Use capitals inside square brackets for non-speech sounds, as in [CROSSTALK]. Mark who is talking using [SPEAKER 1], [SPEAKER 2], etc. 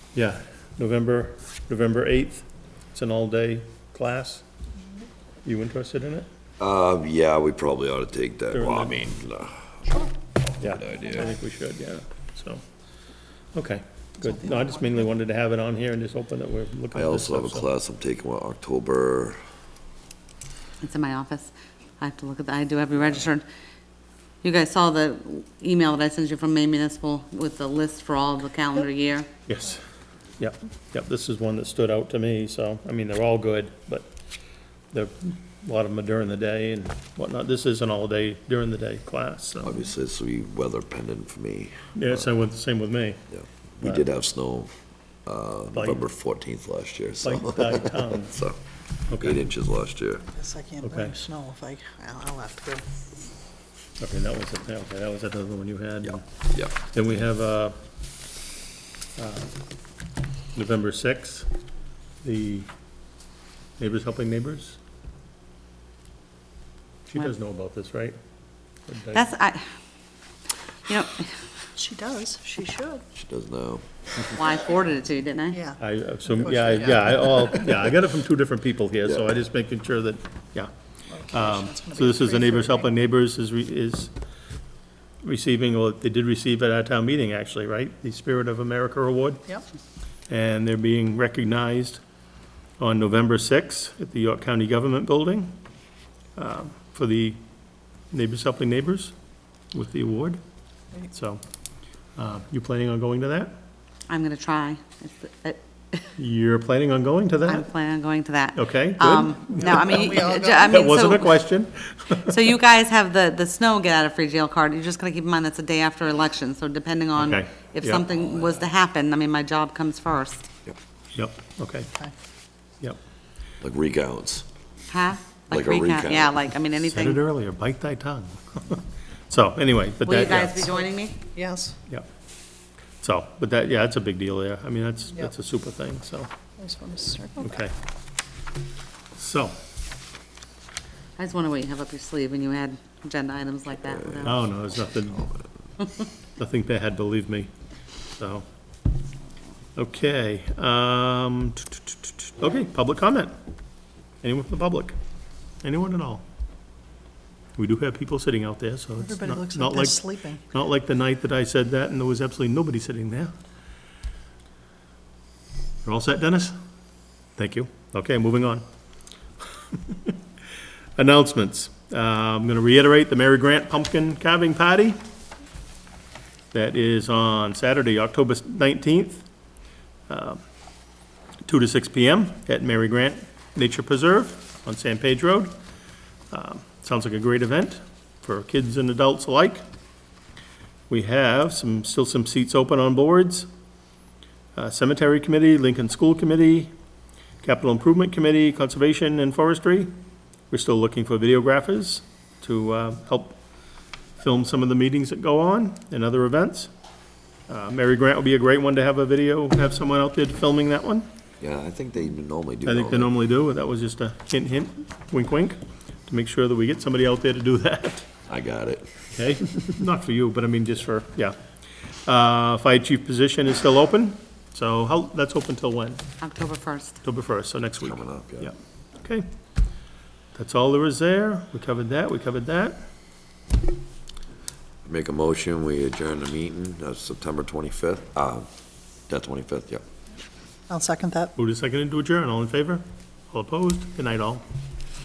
[SPEAKER 1] Yeah, November, November 8th. It's an all-day class. You interested in it?
[SPEAKER 2] Uh, yeah, we probably ought to take that.
[SPEAKER 1] During
[SPEAKER 2] Well, I
[SPEAKER 1] the-
[SPEAKER 2] mean, uh,
[SPEAKER 1] Yeah.
[SPEAKER 2] Good idea.
[SPEAKER 1] I think we should, yeah, so, okay, good. No, I just mainly wanted to have it on here and just hoping that we're looking
[SPEAKER 2] I
[SPEAKER 1] at this
[SPEAKER 2] also have a
[SPEAKER 1] stuff, so.
[SPEAKER 2] class I'm taking on October,
[SPEAKER 3] It's in my office. I have to look at, the- I do have you registered. You guys saw the email that I sent you from Maine Municipal with the list for all the calendar year?
[SPEAKER 1] Yes, yep, yep, this is one that stood out to me, so, I mean, they're all good, but there, a lot of them are during the day and whatnot. This is an all-day, during the day class, so.
[SPEAKER 2] obviously, it's be weather pendant for me.
[SPEAKER 1] Yeah, same with, same with me,
[SPEAKER 2] Yeah. We did have snow, uh, November fourteenth last year, so.
[SPEAKER 1] like, like,
[SPEAKER 2] [LAUGHS]
[SPEAKER 1] um,
[SPEAKER 2] So, eight
[SPEAKER 1] okay,
[SPEAKER 2] inches last year.
[SPEAKER 4] Yes, I can't
[SPEAKER 1] Okay.
[SPEAKER 4] bring snow if I, I'll I'll have to go.
[SPEAKER 1] okay, that was, it. okay, that was another one you had.
[SPEAKER 2] Yeah, yeah.
[SPEAKER 1] Then we have, uh, uh, November sixth, the Neighbors Helping Neighbors. She
[SPEAKER 3] What?
[SPEAKER 1] does know about this, right?
[SPEAKER 3] That's, I, you know,
[SPEAKER 4] She does, she should,
[SPEAKER 2] She does now.
[SPEAKER 3] well, I forwarded it to you, didn't I?
[SPEAKER 4] yeah.
[SPEAKER 1] I, uh, so, yeah, I- yeah, I, all, yeah, I got it from two different people here, so I
[SPEAKER 2] Yeah.
[SPEAKER 1] just making sure that, yeah.
[SPEAKER 4] Okay,
[SPEAKER 1] Um,
[SPEAKER 4] that's gonna
[SPEAKER 1] so
[SPEAKER 4] be
[SPEAKER 1] this is the
[SPEAKER 4] three
[SPEAKER 1] Neighbors
[SPEAKER 4] for me.
[SPEAKER 1] Helping Neighbors is, re- is receiving, or they did receive at our town meeting, actually, right? The Spirit of America Award.
[SPEAKER 4] Yep,
[SPEAKER 1] and they're being recognized on November 6th at the York County Government Building um, for the Neighbors Helping Neighbors with the award. So, uh, you planning on going to that?
[SPEAKER 3] I'm gonna try. It's- it-
[SPEAKER 1] You're planning on going to
[SPEAKER 3] I'm
[SPEAKER 1] that?
[SPEAKER 3] planning on going to that.
[SPEAKER 1] Uh-huh. Okay, good.
[SPEAKER 3] Um, no, I mean,
[SPEAKER 4] [LAUGHS] We all
[SPEAKER 3] j- I
[SPEAKER 1] That
[SPEAKER 3] mean,
[SPEAKER 1] wasn't a
[SPEAKER 3] so,
[SPEAKER 1] question.
[SPEAKER 3] so you guys have the, the snow get out of free jail card. You just gotta keep in mind that's a day after election, so depending on
[SPEAKER 1] Okay,
[SPEAKER 3] if
[SPEAKER 1] yeah.
[SPEAKER 3] something was to happen, I mean, my job comes first.
[SPEAKER 1] Yep, okay, yep.
[SPEAKER 2] Like recounts.
[SPEAKER 3] Huh?
[SPEAKER 2] Like a recount.
[SPEAKER 3] Yeah, like, I mean,
[SPEAKER 1] Said it
[SPEAKER 3] anything.
[SPEAKER 1] earlier, bite thy tongue. [LAUGHS] So, anyway, but
[SPEAKER 3] Will you
[SPEAKER 1] that,
[SPEAKER 3] guys be
[SPEAKER 1] yeah,
[SPEAKER 3] joining me?
[SPEAKER 4] yes,
[SPEAKER 1] yep. So, but that, yeah, that's a big deal there. I mean, that's,
[SPEAKER 4] Yeah.
[SPEAKER 1] that's a super thing, so,
[SPEAKER 4] I just want to circle back.
[SPEAKER 1] okay. So,
[SPEAKER 3] I just wonder what you have up your sleeve when you add agenda items like that without.
[SPEAKER 1] Oh, no, there's nothing, nothing they had, believe me, so. Okay, um, okay, public comment. Anyone from the public? Anyone at all? We do have people sitting out there, so it's
[SPEAKER 4] Everybody
[SPEAKER 1] not,
[SPEAKER 4] looks
[SPEAKER 1] not
[SPEAKER 4] like they're
[SPEAKER 1] like,
[SPEAKER 4] sleeping.
[SPEAKER 1] not like the night that I said that and there was absolutely nobody sitting there. You're all set, Dennis? Thank you. Okay, moving on. [LAUGHS] Announcements. Uh, I'm going to reiterate the Mary Grant Pumpkin Carving Party. That is on Saturday, October 19th, uh, 2 to 6 PM at Mary Grant Nature Preserve on San Page Road. Um, Sounds like a great event for kids and adults alike. We have some, still some seats open on boards. Uh, Cemetery Committee, Lincoln School Committee, Capital Improvement Committee, Conservation and Forestry. We're still looking for videographers to uh, help film some of the meetings that go on and other events. Uh, Mary Grant would be a great one to have a video, have someone out there filming that one.
[SPEAKER 2] Yeah, I think they normally do.
[SPEAKER 1] I think they
[SPEAKER 2] that.
[SPEAKER 1] normally do, that was just a hint, hint, wink, wink, to make sure that we get somebody out there to do that.
[SPEAKER 2] I got it.
[SPEAKER 1] Okay, [LAUGHS] not for you, but I mean, just for, yeah. Uh, Fire chief position is still open, so how, that's open till when?
[SPEAKER 3] October 1st.
[SPEAKER 1] October 1st, so next week.
[SPEAKER 2] Coming up, yeah.
[SPEAKER 1] Yeah, okay. That's all there is there. We covered that, we covered that.
[SPEAKER 2] Make a motion, we adjourn the meeting, uh, September twenty-fifth, uh, that twenty-fifth, yeah.
[SPEAKER 4] I'll second that.
[SPEAKER 1] Move to second into adjourn, all in favor? All opposed? Good night, all.